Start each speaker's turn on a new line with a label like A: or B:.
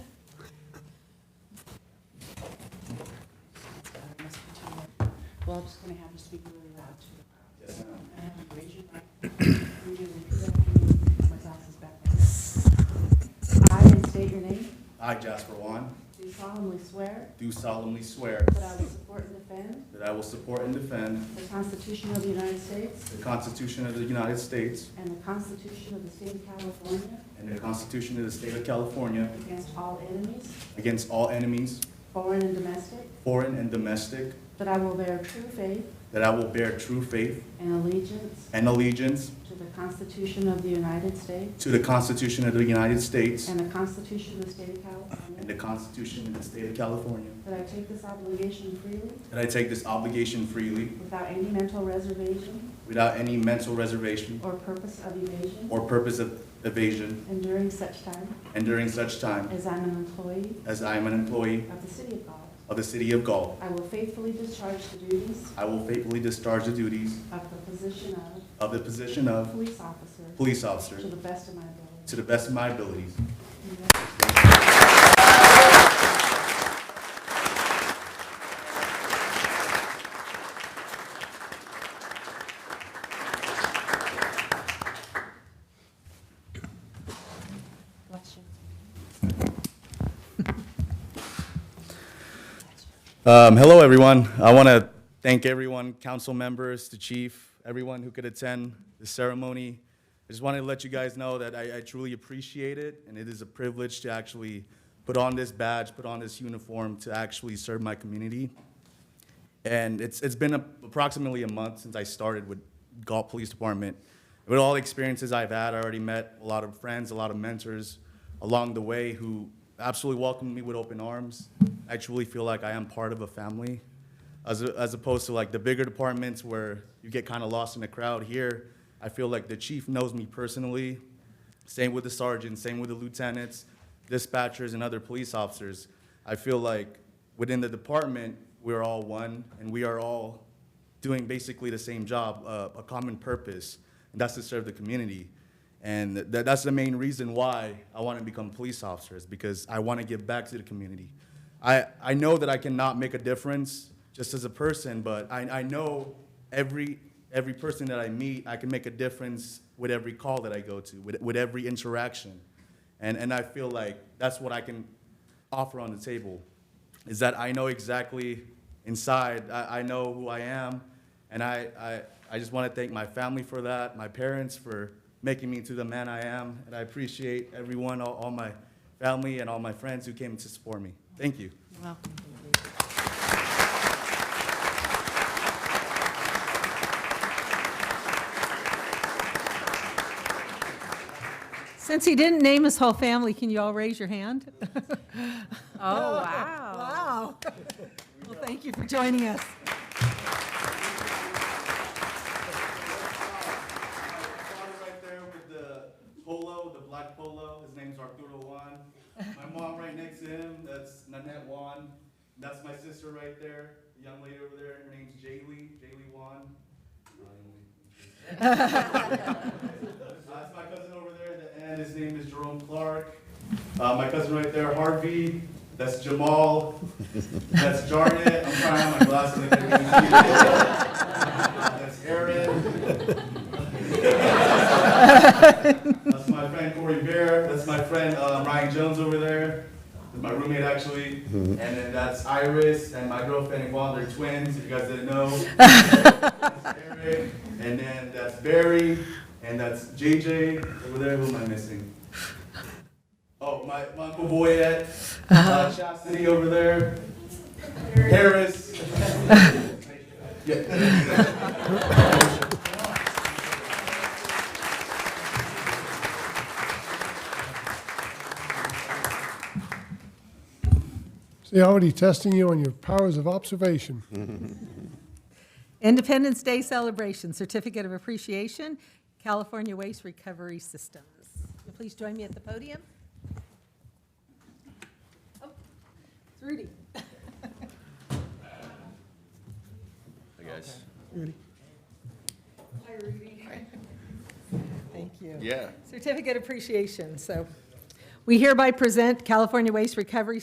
A: uh, Well, I'm just going to have you speak really loud too. And have you raise your right. You do repeat after me. My glasses back down. I, and state your name,
B: I, Jasper Juan,
A: do solemnly swear
B: do solemnly swear
A: that I will support and defend
B: that I will support and defend
A: the Constitution of the United States
B: the Constitution of the United States
A: and the Constitution of the State of California
B: and the Constitution of the State of California
A: against all enemies,
B: against all enemies,
A: foreign and domestic,
B: foreign and domestic,
A: that I will bear true faith
B: that I will bear true faith
A: and allegiance
B: and allegiance
A: to the Constitution of the United States
B: to the Constitution of the United States
A: and the Constitution of the State of
B: and
A: California,
B: the Constitution of the State of California,
A: that I take this obligation freely
B: that I take this obligation freely
A: Without any mental reservation
B: without any mental reservation
A: or purpose of evasion.
B: or purpose of evasion,
A: And during such time
B: and during such time
A: as I'm an employee
B: as I am an employee
A: of the City of Galt,
B: of the City of Galt,
A: I will faithfully discharge the duties
B: I will faithfully discharge the duties
A: of the position of
B: of the position of
A: police officer
B: police
A: to
B: officer
A: the best of my ability.
B: to the best of my abilities.
A: Bless you.
B: Um, hello, everyone. I want to thank everyone, council members, the chief, everyone who could attend the ceremony. I just wanted to let you guys know that I, I truly appreciate it, and it is a privilege to actually put on this badge, put on this uniform to actually serve my community. And it's, it's been a- approximately a month since I started with Galt Police Department. With all the experiences I've had, I already met a lot of friends, a lot of mentors along the way who absolutely welcomed me with open arms. I truly feel like I am part of a family, as, a- as opposed to like the bigger departments where you get kind of lost in the crowd. Here, I feel like the chief knows me personally. Same with the sergeants, same with the lieutenants, dispatchers, and other police officers. I feel like within the department, we're all one, and we are all doing basically the same job, uh, a common purpose, and that's to serve the community. And that, that's the main reason why I want to become police officers, because I want to give back to the community. I, I know that I cannot make a difference just as a person, but I, I know every, every person that I meet, I can make a difference with every call that I go to, with, with every interaction. And, and I feel like that's what I can offer on the table is that I know exactly inside, I, I know who I am. And I, I, I just want to thank my family for that, my parents for making me into the man I am. And I appreciate everyone, all, all my family and all my friends who came to support me. Thank you.
A: Welcome.
C: Since he didn't name his whole family, can you all raise your hand?
D: Oh, wow.
C: Wow. Well, thank you for joining us.
B: father right there with the polo, the black polo. His name's Arturo Juan. My mom right next to him, that's Nanette Juan. That's my sister right there, the young lady over there. Her name's Jaylee, Jaylee Juan. Uh, That's my cousin over there at the end. His name is Jerome Clark. Uh, my cousin right there, Harvey. That's Jamal. That's Jarnett. I'm trying on my glasses. I can't even see. That's Aaron. That's my friend Corey Bear. That's my friend uh, Ryan Jones over there. That's my roommate actually. And then that's Iris and my girlfriend Yvonne. They're twins. If you guys didn't know. That's Eric. And then that's Barry. And that's JJ over there. Who am I missing? Oh, my, my uncle Boyette. Uh, Chastity over there. Harris. yeah.
E: See, already testing you on your powers of observation.
C: Independence Day Celebration, Certificate of Appreciation, California Waste Recovery Systems. Will you Please join me at the podium. Oh, It's Rudy.
F: Hey, guys.
C: Hi, Rudy. Thank you.
F: Yeah.
C: Certificate of Appreciation, so. We hereby present California Waste Recovery